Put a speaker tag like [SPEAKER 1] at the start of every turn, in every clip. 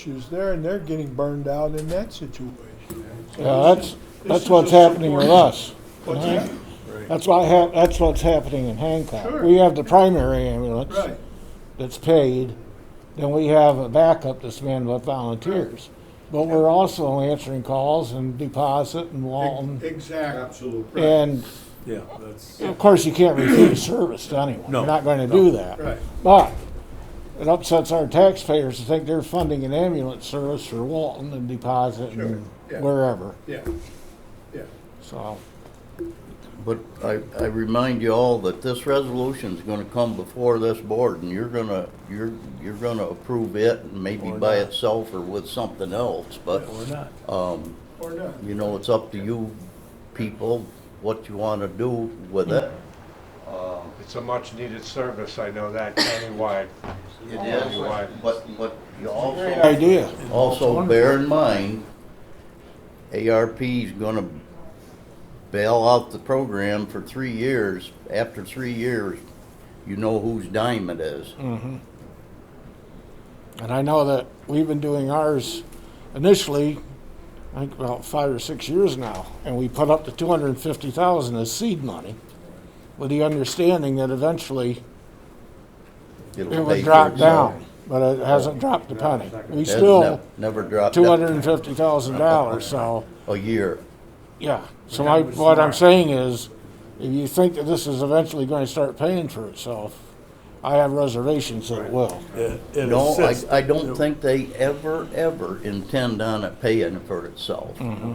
[SPEAKER 1] issues there, and they're getting burned out in that situation. So
[SPEAKER 2] Yeah,
[SPEAKER 1] this
[SPEAKER 2] that's,
[SPEAKER 1] is- this
[SPEAKER 2] that's
[SPEAKER 1] is
[SPEAKER 2] what's
[SPEAKER 1] a
[SPEAKER 2] happening with
[SPEAKER 1] supporting-
[SPEAKER 2] us.
[SPEAKER 1] What's
[SPEAKER 2] Right.
[SPEAKER 1] that?
[SPEAKER 2] That's why hap, that's what's happening in Hancock.
[SPEAKER 1] Sure.
[SPEAKER 2] We have the primary ambulance
[SPEAKER 1] Right,
[SPEAKER 2] that's paid, then we have a backup that's manned with volunteers. But we're also answering calls and deposit
[SPEAKER 1] ex-
[SPEAKER 2] and Walton.
[SPEAKER 1] exactly.
[SPEAKER 3] Absolutely.
[SPEAKER 2] And
[SPEAKER 3] Yeah, that's,
[SPEAKER 2] of course, you can't refuse service to anyone.
[SPEAKER 3] No,
[SPEAKER 2] You're not gonna
[SPEAKER 3] no.
[SPEAKER 2] do that.
[SPEAKER 1] Right.
[SPEAKER 2] But it upsets our taxpayers to think they're funding an ambulance service for Walton and deposit
[SPEAKER 1] Sure,
[SPEAKER 2] and
[SPEAKER 1] yeah.
[SPEAKER 2] wherever,
[SPEAKER 1] Yeah, yeah.
[SPEAKER 2] so.
[SPEAKER 4] But I, I remind you all that this resolution's gonna come before this board, and you're gonna, you're, you're gonna approve it, and maybe
[SPEAKER 3] Or
[SPEAKER 4] by
[SPEAKER 3] not.
[SPEAKER 4] itself or with something else, but,
[SPEAKER 3] or not.
[SPEAKER 4] um,
[SPEAKER 1] Or not.
[SPEAKER 4] you know, it's up to you people, what you wanna do with it.
[SPEAKER 5] It's a much-needed service, I know that countywide.
[SPEAKER 4] It is, but, but you
[SPEAKER 2] Great
[SPEAKER 4] also,
[SPEAKER 2] idea.
[SPEAKER 4] also bear in mind, ARP's gonna bail out the program for three years. After three years, you know whose dime it is.
[SPEAKER 2] And I know that we've been doing ours initially, I think about five or six years now, and we put up to two hundred and fifty thousand as seed money with the understanding that eventually
[SPEAKER 4] It'll
[SPEAKER 2] it
[SPEAKER 4] pay
[SPEAKER 2] would
[SPEAKER 4] for
[SPEAKER 2] drop
[SPEAKER 4] itself.
[SPEAKER 2] down, but it hasn't dropped a penny. We
[SPEAKER 4] That's
[SPEAKER 2] still
[SPEAKER 4] nev- Never dropped.
[SPEAKER 2] two hundred and fifty thousand dollars, so,
[SPEAKER 4] A year.
[SPEAKER 2] yeah. So I, what I'm saying is, if you think that this is eventually gonna start paying for itself, I have reservations that it will.
[SPEAKER 3] It it
[SPEAKER 4] No, I,
[SPEAKER 3] assists.
[SPEAKER 4] I don't think they ever, ever intend on it paying for itself.
[SPEAKER 2] Mm-hmm.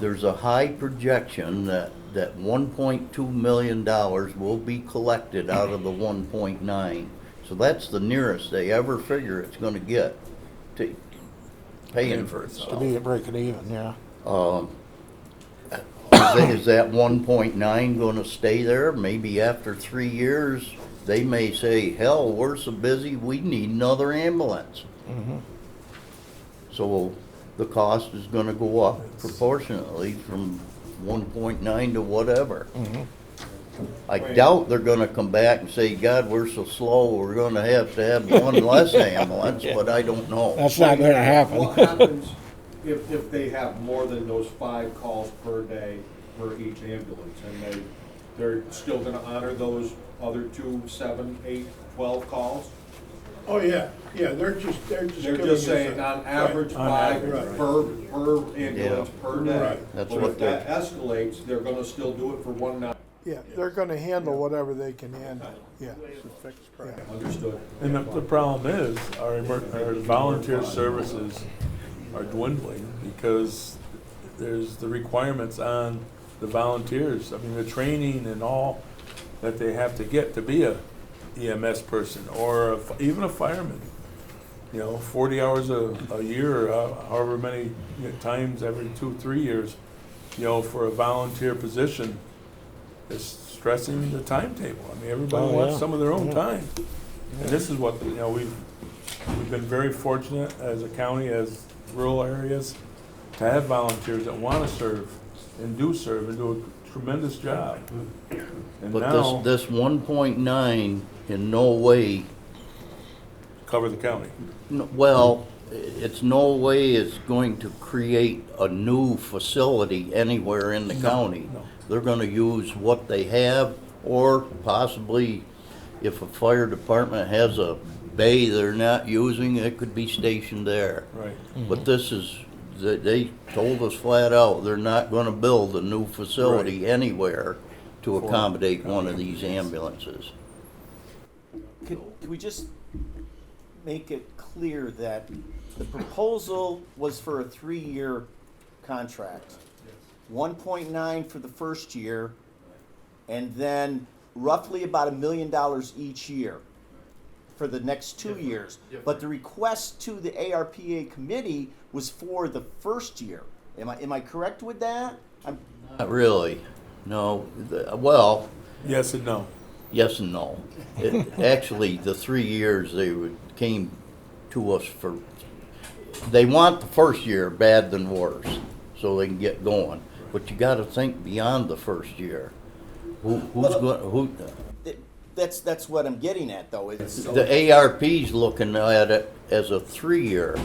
[SPEAKER 4] There's a high projection that, that one point two million dollars will be collected out of the one point nine. So that's the nearest they ever figure it's gonna get to paying for
[SPEAKER 2] To
[SPEAKER 4] itself.
[SPEAKER 2] be at breaking even, yeah.
[SPEAKER 4] Is that- Is that one point nine gonna stay there? Maybe after three years, they may say, hell, we're so busy, we need another ambulance. So the cost is gonna go up proportionately from one point nine to whatever. I doubt they're gonna come back and say, God, we're so slow, we're gonna have to have one less ambulance, but I don't know.
[SPEAKER 2] That's not gonna happen.
[SPEAKER 6] What happens if, if they have more than those five calls per day for each ambulance? And they, they're still gonna honor those other two, seven, eight, twelve calls?
[SPEAKER 1] Oh, yeah, yeah, they're just, they're just.
[SPEAKER 6] They're
[SPEAKER 1] giving us
[SPEAKER 6] just
[SPEAKER 1] a-
[SPEAKER 6] saying on
[SPEAKER 1] Right.
[SPEAKER 6] average,
[SPEAKER 3] On
[SPEAKER 6] five
[SPEAKER 1] average, right.
[SPEAKER 6] per, per ambulance, per day.
[SPEAKER 1] Right.
[SPEAKER 4] That's
[SPEAKER 6] But
[SPEAKER 4] what
[SPEAKER 6] if that escalates, they're gonna still do it for one night.
[SPEAKER 1] Yeah, they're gonna handle whatever they can handle, yeah. Yeah.
[SPEAKER 6] Understood.
[SPEAKER 3] And the, the problem is, our, emer- our volunteer services are dwindling because there's the requirements on the volunteers. I mean, the training and all that they have to get to be a EMS person or a f- even a fireman. You know, forty hours a, a year, uh, however many times every two, three years, you know, for a volunteer position is stressing the timetable. I mean, everybody
[SPEAKER 2] Oh,
[SPEAKER 3] wants
[SPEAKER 2] yeah.
[SPEAKER 3] some of their own
[SPEAKER 2] Yeah.
[SPEAKER 3] time. And this is what, you know, we've, we've been very fortunate as a county, as rural areas, to have volunteers that want to serve and do serve and do a tremendous job.
[SPEAKER 2] Mm-hmm.
[SPEAKER 3] And
[SPEAKER 4] But
[SPEAKER 3] now,
[SPEAKER 4] this, this one point nine in no way
[SPEAKER 3] cover the county.
[SPEAKER 4] N- Well, i- it's no way it's going to create a new facility anywhere in the county.
[SPEAKER 3] no.
[SPEAKER 4] They're gonna use what they have, or possibly if a fire department has a bay they're not using, it could be stationed there.
[SPEAKER 3] Right.
[SPEAKER 4] But this is, they, they told us flat out, they're not gonna build a new facility anywhere to accommodate one of these ambulances.
[SPEAKER 7] Could, could we just make it clear that the proposal was for a three-year contract? One point nine for the first year, and then roughly about a million dollars each year for the next two years. But the request to the ARPA committee was for the first year. Am I, am I correct with that? I'm,
[SPEAKER 4] Not really, no, the- well,
[SPEAKER 3] Yes and no.
[SPEAKER 4] Yes and no. It- Actually, the three years they would- came to us for, they want the first year bad than worse, so they can get going. But you gotta think beyond the first year. Who, who's going, who,
[SPEAKER 7] that- that's, that's what I'm getting at, though. It's,
[SPEAKER 4] the ARP's looking at it as a three-year